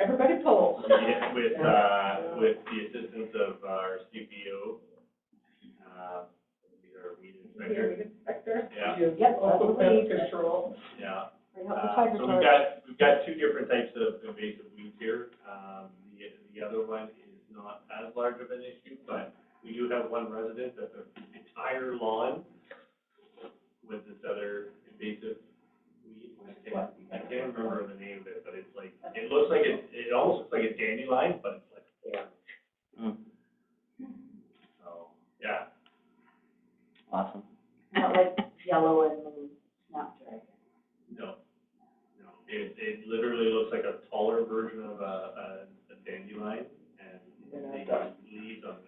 Everybody pull. Yeah, with, uh, with the assistance of our CPO, uh, he's our weed inspector, Inspector. Yeah. Yep, also pest control. yeah. We help the Uh, tiger so we've guard. got, we've got two different types of invasive weeds here. Um, the, the other one is not as large of an issue, but we do have one resident that the entire lawn with this other invasive weed. I can't, I can't remember the name of it, but it's like, it looks like it, it almost looks like a dandelion, but it's like orange. So, yeah, Awesome. Not like yellow and snapdragon. no, no, it, it literally looks like a taller version of a, a, a dandelion, and they got leaves on it.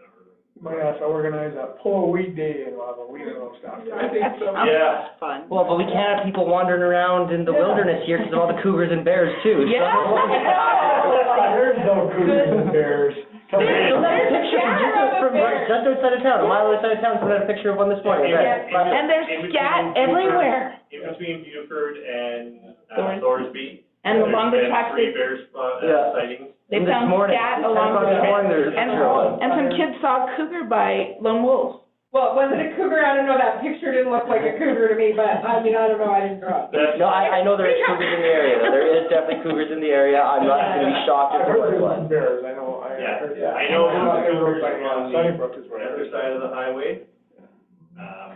Might have to organize a pull weed day and we'll have a weed and stuff. I think so. Yeah, Fun. Well, but we can't have people wandering around in the Yeah. wilderness here because of all the cougars and bears too. so- There's no cougars and bears. Come on. There's a There's a picture camera from just of a from bear. right- just outside of town, a mile outside of town, someone had a picture of one this morning. Yeah. right? Yeah. Last- And there's scat everywhere. in between Buford and, uh, Thorsby. And the there's lumber been trucks, Three bear spot, uh, Yeah. sightings. they From this found morning. scat Ten along o'clock the this way. morning, there's a And, picture of one. and some kids saw a cougar by lone wolf. Well, was it a cougar? I don't know. That picture didn't look like a cougar to me, but I mean, I don't know. I didn't draw. it. That's- No, I, I know there is cougars in the area, though. There is definitely cougars in the area. I'm not gonna be shocked I if there heard was there's one. some bears, I know, I Yeah, heard yeah, that. I know I'm not there's gonna look cougars like on that. the- Sunnybrook is the where. other side of the highway. Um,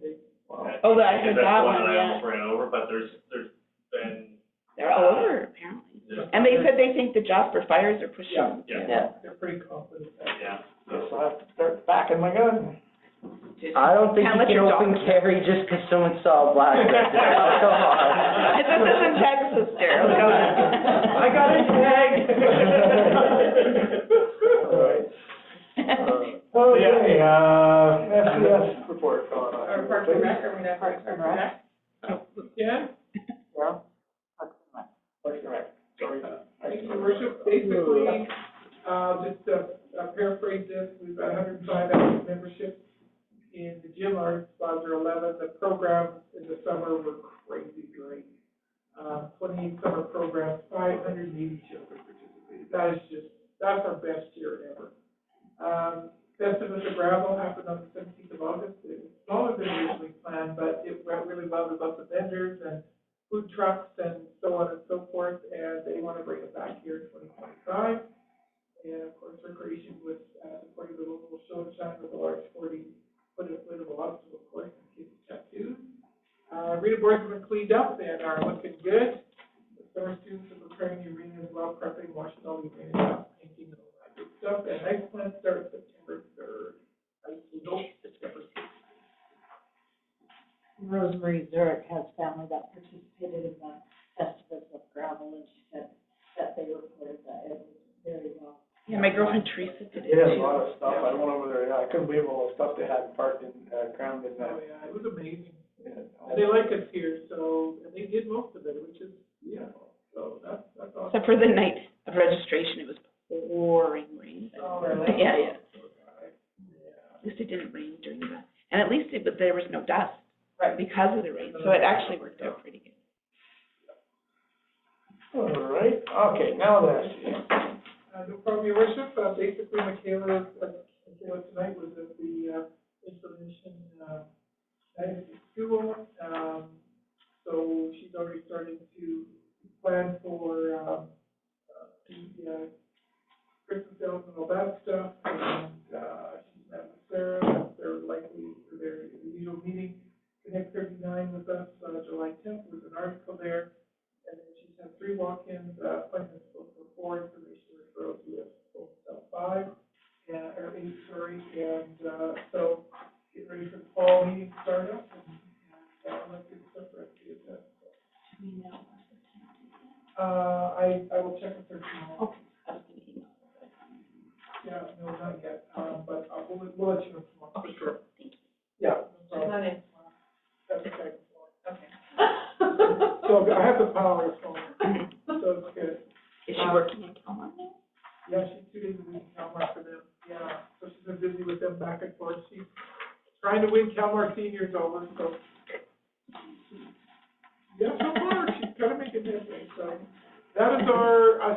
that- Oh, I because heard that's that the one, that I yeah. almost ran over, but there's, there's been, They're all over apparently. there's. And they said they think the Jasper fires are pushing them. Yeah, Yeah. They're pretty confident. yeah, Guess so, I'll have to start backing my gun. I don't think Can't you let can your dog- open carry just because someone saw a black dress. Come on. This is in Texas, Daryl, come on. I got a All right. it. Oh, Okay, uh, FCS report, Colin. Or Parks and Rec, are we not Parks and Rec? Yeah. Parks and Rec. Sorry. Thank you, Your worship. Basically, uh, just to uh, paraphrase this, we've got hundred and five active memberships in the gym, our sponsor eleven. The programs in the summer were crazy great. Uh, twenty summer programs, five hundred and eighty children participated. That is just, that's our best year ever. Um, Festival of Gravel happened on the seventeenth of August. It was smaller than originally planned, but it went really well with lots of vendors and food trucks and so on and so forth, and they want to bring it back here in twenty twenty-five. And of course, recreation was, uh, supporting the local show and shine with a large sporting, put a inflatable obstacle course and kids tattoos. Uh, Rita Board's been cleaned up and are looking good. The summer students are preparing the arena as well, prepping, washing all the arena out, painting and all that good stuff. And ice plant starts September third. Ice nope, September sixth. Rosemary Zurich has family that participated in the Festivus of Gravel, and she said that they reported that it was very well. Yeah, my girlfriend Teresa did it They had a lot too. of stuff, I went over there, yeah, I couldn't believe all the stuff they had parked in, uh, ground Oh, in that. yeah, it was amazing. And yeah. they like us here, so, and they did most of it, which is beautiful, so that's, that's awesome. Except for the night of registration, it was pouring rain. Oh, But yeah, yeah. At least it didn't rain during the, and at least it, but there was no dust. Right. Because of the rain, so it actually worked out pretty good. All right, okay, now then, Uh, no problem, your worship, uh, basically Michaela, uh, Michaela tonight was at the, uh, installation, uh, night at the school, um, so she's already starting to plan for, um, uh, the, uh, Christmas sales and all that stuff, and, uh, she's met with Sarah, they're likely for their usual meeting, Connect thirty-nine with us, uh, July tenth, was an article there, and then she's had three walk-ins, uh, appointments booked for four, information referrals, we have booked uh, five, and, or eight, sorry, and, uh, so get ready for the fall meeting startup, and, and, uh, let's get stuff ready to get that. Uh, I, I will check with her tomorrow. I was gonna email. Yeah, no, not yet, um, but uh, we'll, we'll let you know tomorrow, for sure. Thank Yeah, no problem. Not in. That's okay. So Okay. I have the power of phone, so it's good. Is she working in Kelmar now? Yeah, she's two days a week in Calmar for them, yeah, so she's been busy with them back and forth, she's trying to win Calmar seniors over, so. Yeah, so far, she's kind of making headway, so, that is our, uh,